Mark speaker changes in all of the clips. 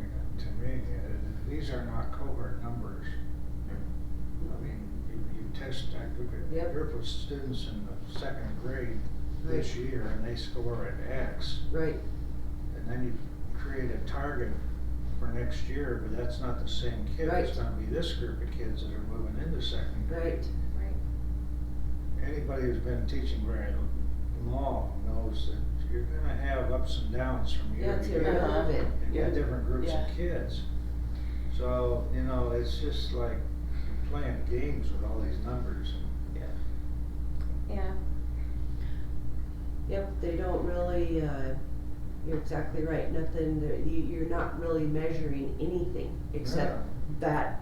Speaker 1: uh, these are not covert numbers. I mean, you, you test, I took a
Speaker 2: Yep.
Speaker 1: group of students in the second grade this
Speaker 2: Right.
Speaker 1: year and they score at X.
Speaker 2: Right,
Speaker 1: And then you create a target for next year, but that's not the same kid. It's
Speaker 2: Right.
Speaker 1: gonna be this group of kids that are moving into second grade.
Speaker 2: right,
Speaker 3: Right.
Speaker 1: Anybody who's been teaching very long knows that you're gonna have ups and downs from year
Speaker 2: that's
Speaker 1: to
Speaker 2: it,
Speaker 1: year.
Speaker 2: I love it.
Speaker 1: and
Speaker 4: Yeah.
Speaker 1: with different groups
Speaker 3: Yeah.
Speaker 1: of kids. So, you know, it's just like playing games with all these numbers.
Speaker 3: Yeah.
Speaker 2: Yep, they don't really, uh, you're exactly right, nothing, there- you, you're not really measuring anything except that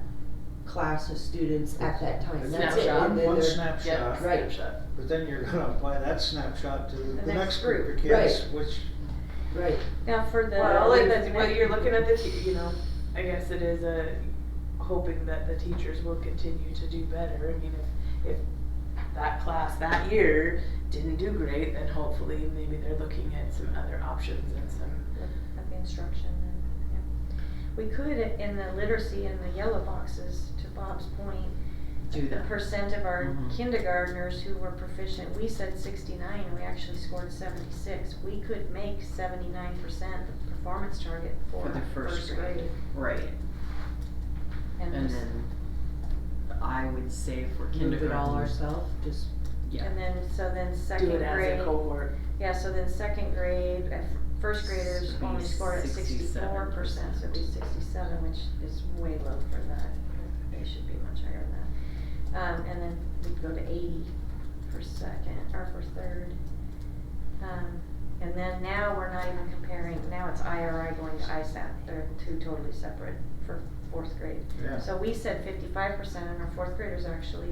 Speaker 2: class of students at that time, that's it.
Speaker 4: Snapshot.
Speaker 2: And then
Speaker 1: One
Speaker 2: they're-
Speaker 1: snapshot,
Speaker 2: Right.
Speaker 1: but then you're gonna apply that snapshot to the
Speaker 3: next
Speaker 1: next group of
Speaker 3: group.
Speaker 1: kids, which,
Speaker 2: Right,
Speaker 3: Now for the.
Speaker 4: Well, and that's, but you're looking at the, te- you know, I guess it is a, hoping that the teachers will continue to do better. I mean, if, if that class that year didn't do great, then hopefully maybe they're looking at some other options and some,
Speaker 3: At the instruction and, yeah. We could, in the literacy in the yellow boxes, to Bob's point,
Speaker 4: do
Speaker 3: the
Speaker 4: that.
Speaker 3: percent of our
Speaker 5: Mm-hmm.
Speaker 1: Mhm.
Speaker 3: kindergartners who were proficient, we said sixty-nine and we actually scored seventy-six. We could make seventy-nine percent the performance target for
Speaker 5: For the first
Speaker 3: first
Speaker 5: grade.
Speaker 3: grade.
Speaker 5: Right, and
Speaker 3: just-
Speaker 5: then I would say for
Speaker 2: move
Speaker 5: kindergarten.
Speaker 2: it all ourselves, just,
Speaker 5: Yeah,
Speaker 3: And then, so then second
Speaker 4: Do
Speaker 3: grade.
Speaker 4: it as a cohort.
Speaker 3: Yeah, so then second grade, uh, f- first graders
Speaker 5: Should be
Speaker 3: only scored at sixty-four percent,
Speaker 5: 67%.
Speaker 3: so it'd be sixty-seven, which is way low for that. They should be much higher than that. Um, and then we'd go to eighty for second, or for third. Um, and then now we're not even comparing, now it's IRI going to ISAT, they're two totally separate for fourth grade.
Speaker 1: yeah.
Speaker 3: So we said fifty-five percent and our fourth graders actually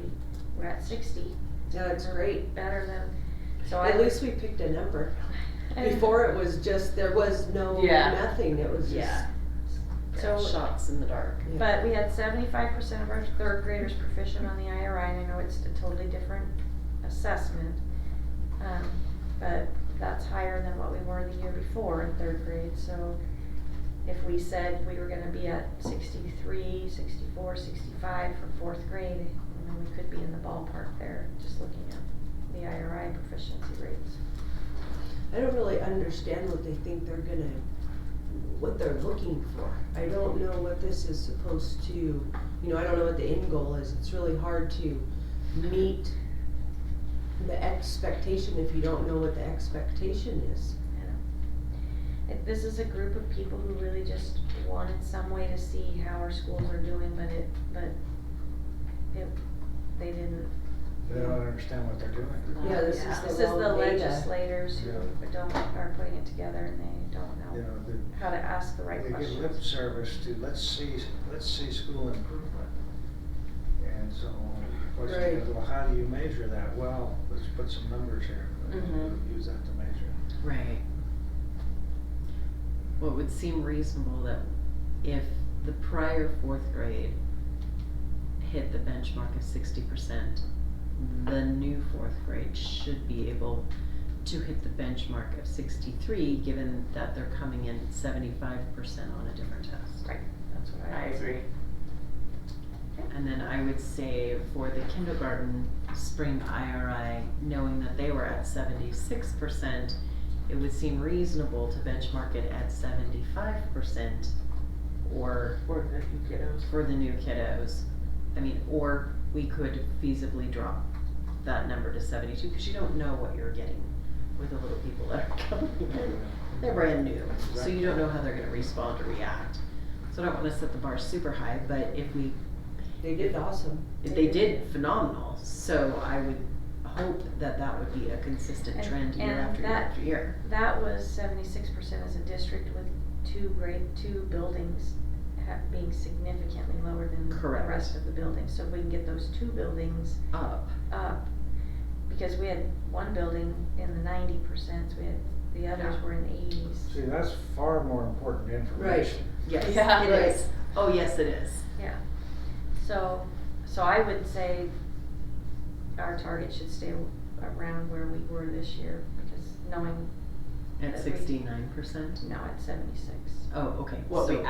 Speaker 3: were at sixty,
Speaker 2: yeah, it's great.
Speaker 3: better than, so I.
Speaker 2: At least we picked a number. Before it was just, there was no,
Speaker 4: Yeah.
Speaker 2: nothing, it was just,
Speaker 5: Yeah.
Speaker 3: So-
Speaker 5: shots in the dark.
Speaker 3: But we had seventy-five percent of our third graders proficient on the IRI, and I know it's a totally different assessment. Um, but that's higher than what we were the year before in third grade, so if we said we were gonna be at 63, 64, 65 for fourth grade, you know, we could be in the ballpark there, just looking at the IRI proficiency rates.
Speaker 2: I don't really understand what they think they're gonna, what they're looking for. I don't know what this is supposed to, you know, I don't know what the end goal is. It's really hard to meet the expectation if you don't know what the expectation is.
Speaker 3: It- This is a group of people who really just wanted some way to see how our schools are doing, but it, but it, they didn't.
Speaker 1: They don't understand what they're doing.
Speaker 2: Yeah, this is
Speaker 3: This
Speaker 2: the
Speaker 3: is the
Speaker 2: wrong data.
Speaker 3: legislators who
Speaker 1: Yeah.
Speaker 3: don't, are putting it together and they don't
Speaker 1: You know,
Speaker 3: know
Speaker 1: they-
Speaker 3: how to ask the right
Speaker 1: they give lip
Speaker 3: questions.
Speaker 1: service to, let's see, let's see school improvement. And so, what's,
Speaker 2: Right.
Speaker 1: well, how do you measure that? Well, let's put some numbers here, but
Speaker 4: Mhm.
Speaker 1: use that to measure.
Speaker 5: Right. Well, it would seem reasonable that if the prior fourth grade hit the benchmark of sixty percent, the new fourth grade should be able to hit the benchmark of sixty-three, given that they're coming in seventy-five percent on a different test.
Speaker 3: That's what
Speaker 4: I
Speaker 3: I was.
Speaker 4: agree.
Speaker 5: And then I would say for the kindergarten spring IRI, knowing that they were at seventy-six percent, it would seem reasonable to benchmark it at seventy-five percent or
Speaker 4: Or the new kiddos.
Speaker 5: for the new kiddos. I mean, or we could feasibly drop that number to seventy-two, cause you don't know what you're getting with the little people that are coming in. They're brand new, so you don't know how they're gonna respond or react. So I don't wanna set the bar super high, but if we
Speaker 2: They did awesome.
Speaker 5: they did phenomenal, so I would hope that that would be a consistent
Speaker 3: And-
Speaker 5: trend year
Speaker 3: and
Speaker 5: after year
Speaker 3: that-
Speaker 5: after year.
Speaker 3: That was seventy-six percent as a district with two grade, two buildings ha- being significantly lower than the
Speaker 5: Correct.
Speaker 3: rest of the buildings. So if we can get those two buildings
Speaker 5: Up,
Speaker 3: up, because we had one building in the ninety percent, we had, the others
Speaker 5: Yeah.
Speaker 3: were in the eighties.
Speaker 1: See, that's far more important information.
Speaker 5: yes,
Speaker 4: Yeah.
Speaker 5: it
Speaker 2: Right.
Speaker 5: is. Oh, yes, it is.
Speaker 3: Yeah, so, so I would say our target should stay around where we were this year, because knowing,
Speaker 5: At
Speaker 3: That we-
Speaker 5: sixty-nine percent.
Speaker 3: now at seventy-six.
Speaker 5: Oh, okay.
Speaker 4: What
Speaker 5: so
Speaker 4: we